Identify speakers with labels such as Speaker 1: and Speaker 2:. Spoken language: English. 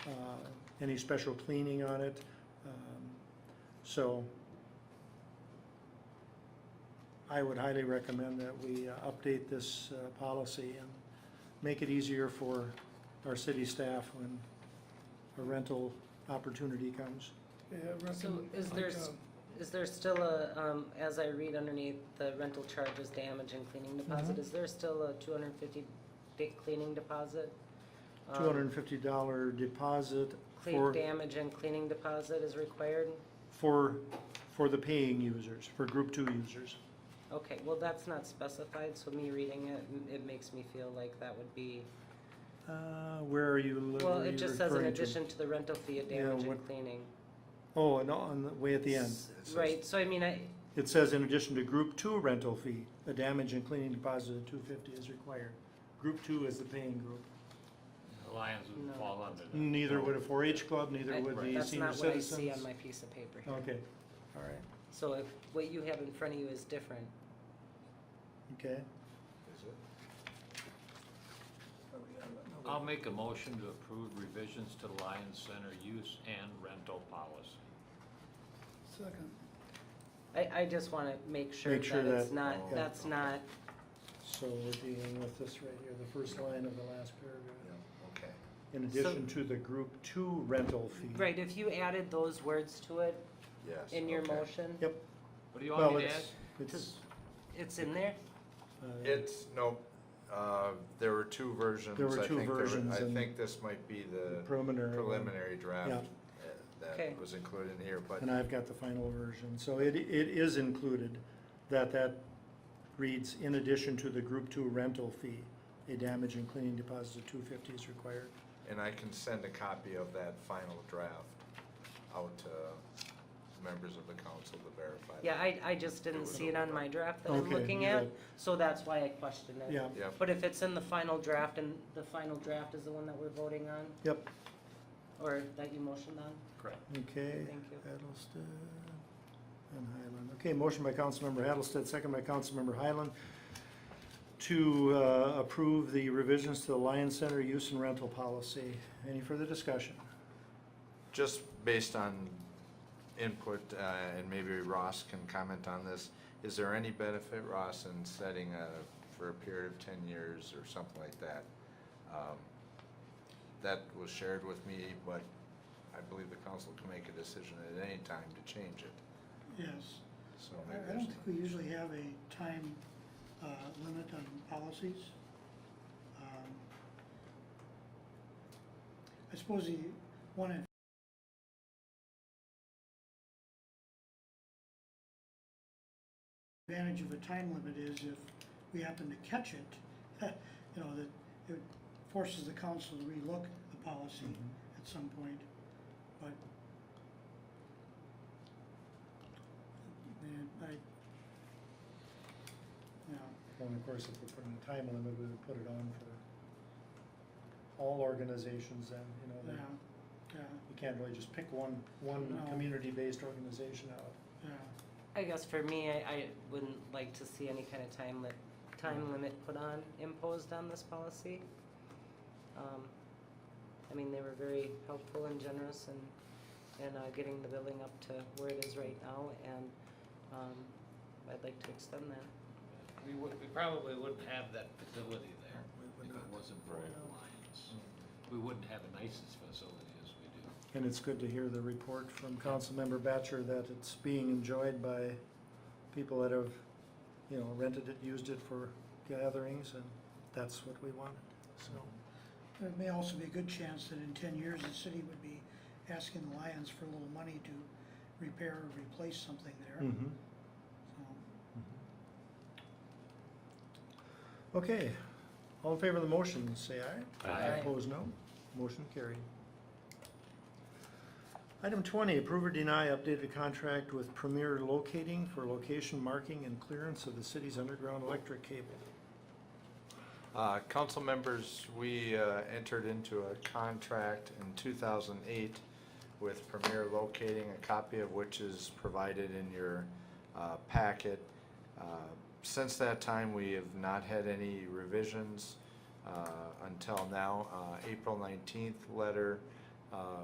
Speaker 1: uh, any special cleaning on it. Um, So I would highly recommend that we uh, update this uh, policy and make it easier for our city staff when a rental opportunity comes.
Speaker 2: Yeah, I reckon,
Speaker 3: So is
Speaker 2: like,
Speaker 3: there
Speaker 2: uh,
Speaker 3: s- Is there still a, um, as I read underneath the rental charges, damage and cleaning deposit,
Speaker 1: Mhm.
Speaker 3: is there still a two hundred and fifty day cleaning deposit? Um,
Speaker 1: Two hundred and fifty dollar deposit
Speaker 3: Clean,
Speaker 1: for,
Speaker 3: damage and cleaning deposit is required?
Speaker 1: for, for the paying users, for group two users.
Speaker 3: Okay, well, that's not specified, so me reading it, m- it makes me feel like that would be,
Speaker 1: Uh, where are you, li-
Speaker 3: well,
Speaker 1: where are
Speaker 3: it
Speaker 1: you
Speaker 3: just says in
Speaker 1: referring to?
Speaker 3: addition to the rental fee of
Speaker 1: Yeah,
Speaker 3: damage
Speaker 1: what-
Speaker 3: and cleaning.
Speaker 1: Oh, and on, the way at the end.
Speaker 3: Right, so I mean, I,
Speaker 1: It says in addition to group two rental fee, the damage and cleaning deposit of two fifty is required. Group two is the paying group.
Speaker 4: The Lions
Speaker 3: No.
Speaker 4: would fall under that.
Speaker 1: Neither would a four H club, neither
Speaker 3: I-
Speaker 1: would the
Speaker 3: that's
Speaker 1: senior
Speaker 3: not what I see
Speaker 1: citizens. Oh.
Speaker 3: on my piece of paper here.
Speaker 1: Okay, all right,
Speaker 3: So if what you have in front of you is different,
Speaker 1: okay.
Speaker 2: Oh,
Speaker 1: Um,
Speaker 4: I'll make a motion to approve revisions to the Lions Center use and rental policy.
Speaker 2: Second,
Speaker 3: I, I just wanna make sure
Speaker 1: Make sure
Speaker 3: that it's
Speaker 1: that-
Speaker 3: not,
Speaker 4: Oh,
Speaker 3: that's
Speaker 4: okay.
Speaker 3: not
Speaker 1: So we're dealing with this right here, the first line of the last paragraph.
Speaker 5: Okay.
Speaker 1: In
Speaker 3: So-
Speaker 1: addition to the group two rental fee.
Speaker 3: Right, if you added those words to it
Speaker 5: Yes.
Speaker 3: in your
Speaker 5: okay.
Speaker 3: motion,
Speaker 1: Yep.
Speaker 4: What do you want
Speaker 1: Well,
Speaker 4: me to add?
Speaker 1: it's, it's,
Speaker 3: it's in there?
Speaker 1: uh,
Speaker 5: It's, no, uh, there were two versions.
Speaker 1: There were
Speaker 5: I
Speaker 1: two
Speaker 5: think were-
Speaker 1: versions
Speaker 5: I
Speaker 1: and-
Speaker 5: think this might be the
Speaker 1: preliminary. one,
Speaker 5: uh, preliminary draft
Speaker 1: Yeah.
Speaker 5: uh,
Speaker 3: Okay.
Speaker 5: that was included in here, but
Speaker 1: And I've got the final version, so it, it is included, that that reads, in addition to the group two rental fee, a damage and cleaning deposit of two fifty is required.
Speaker 5: And I can send a copy of that final draft out to members of the council to verify.
Speaker 3: Yeah,
Speaker 5: that.
Speaker 3: I, I just didn't see it on my draft that I'm
Speaker 1: Okay,
Speaker 3: looking
Speaker 1: you
Speaker 3: at,
Speaker 1: had-
Speaker 3: so that's why I questioned it.
Speaker 1: Yeah,
Speaker 5: Yep,
Speaker 3: But if it's in the final draft, and the final draft is the one that we're voting on,
Speaker 1: yep,
Speaker 3: or that you motioned on,
Speaker 4: Correct.
Speaker 1: okay.
Speaker 3: thank you.
Speaker 1: Hattlestead and Highland. Okay, motion by Councilmember Hattlestead, second by Councilmember Highland, to uh, approve the revisions to the Lion Center use and rental policy. Any further discussion?
Speaker 5: just based on input, uh, and maybe Ross can comment on this, is there any benefit, Ross, in setting a, for a period of ten years or something like that? Um, That was shared with me, but I believe the council can make a decision at any time to change it,
Speaker 6: Yes,
Speaker 5: so
Speaker 6: I-
Speaker 5: maybe
Speaker 6: I
Speaker 5: there's.
Speaker 6: don't think we usually have a time uh, limit on policies. Um, I suppose the one in advantage of a time limit is if we happen to catch it, you know, that it forces the council to relook the policy at some point, but Man, I, you know,
Speaker 1: Well, and of course, if we put in a time limit, we would put it on for all organizations then, you know, that
Speaker 6: yeah, yeah,
Speaker 1: you can't really just pick one, one
Speaker 6: No.
Speaker 1: community-based organization out.
Speaker 6: yeah.
Speaker 3: I guess for me, I, I wouldn't like to see any kind of time limit, time limit put on, imposed on this policy. Um, I mean, they were very helpful and generous in, in uh, getting the building up to where it is right now, and, um, I'd like to extend that.
Speaker 4: We would, we probably wouldn't have that facility there if it wasn't for the Lions. We wouldn't have a nicest facility as we do.
Speaker 1: And it's good to hear the report from Councilmember Batcher that it's being enjoyed by people that have, you know, rented it, used it for gatherings, and that's what we wanted, so.
Speaker 6: There may also be a good chance that in ten years, the city would be asking the Lions for a little money to repair or replace something there,
Speaker 1: Hmm.
Speaker 6: so.
Speaker 1: Okay, all in favor of the motion, say aye.
Speaker 4: Aye.
Speaker 3: Aye.
Speaker 1: Opposed, no. Motion carried. Item twenty, approve or deny updated contract with Premier Locating for location marking and clearance of the city's underground electric cable.
Speaker 5: Uh, Council members, we uh, entered into a contract in 2008 with Premier Locating, a copy of which is provided in your uh, packet. Uh, Since that time, we have not had any revisions uh, until now. Uh, April 19th letter